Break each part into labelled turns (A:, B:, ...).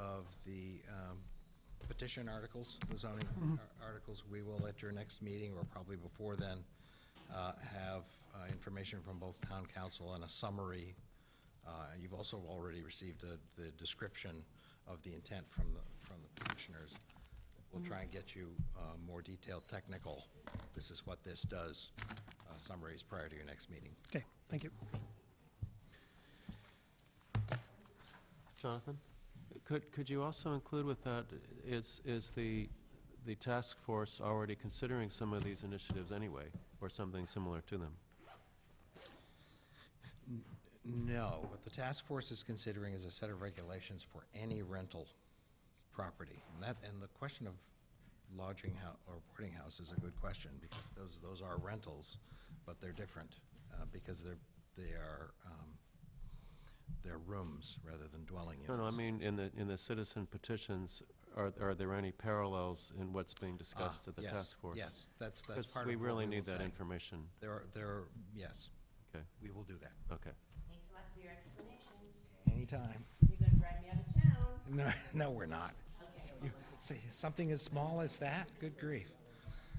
A: um, petition articles, the zoning ar- articles, we will at your next meeting, or probably before then, uh, have uh, information from both town council and a summary. Uh, You've also already received the- the description of the intent from the, from the petitioners. We'll try and get you uh, more detailed technical, this is what this does, uh, summaries prior to your next meeting.
B: Okay, thank you.
C: Jonathan, could, could you also include with that, is, is the, the task force already considering some of these initiatives anyway, or something similar to them?
A: No, what the task force is considering is a set of regulations for any rental property. And that, and the question of lodging house or boarding house is a good question, because those, those are rentals, but they're different, uh, because they're, they are, um, they're rooms rather than dwelling units.
C: No, no, I mean, in the, in the citizen petitions, are, are there any parallels in what's being discussed at the
A: Ah, Yes,
C: task force?
A: Yes, that's, that's
C: Because
A: part of
C: we
A: what
C: really
A: will
C: need that
A: say.
C: information.
A: There are, there are, yes,
C: Okay,
A: we will do that,
C: okay.
D: Thanks a lot for your explanations.
A: anytime.
D: You're gonna drive me out of town.
A: No, no, we're not.
D: Okay.
A: You- Say, something as small as that, good grief.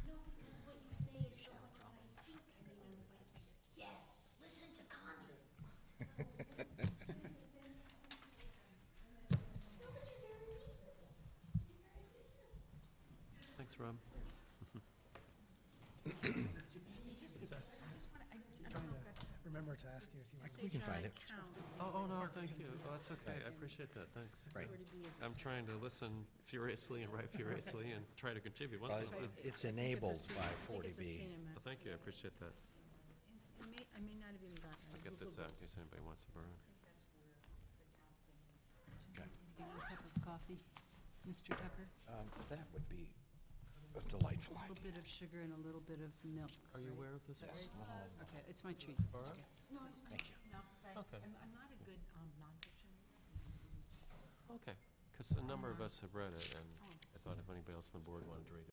D: No, because what you say is so much what I think, and then I was like, yes, listen to Connie.
C: Thanks, Rob.
B: Remember to ask you if you want.
A: We can find it.
C: Oh, oh, no, thank you. Well, that's okay. I appreciate that. Thanks.
A: Right.
C: I'm trying to listen furiously and write furiously and try to contribute once in
A: But
C: a while.
A: It's enabled by 40B.
C: Well, Thank you, I appreciate that.
E: I may, I may not have even gotten it.
C: I'll get this out in case anybody wants to borrow. it.
A: Okay.
E: Get a cup of coffee, Mr. Tucker.
A: Um, That would be a delightful
E: A little
A: idea.
E: bit of sugar and a little bit of milk.
C: Are you aware of this?
E: Okay, it's my treat. It's okay. No, I'm,
A: Thank you.
C: Okay.
E: I'm, I'm not a good um, nonfiction.
C: Okay, because a number of us have read it, and I thought if anybody else on the board wanted to read it.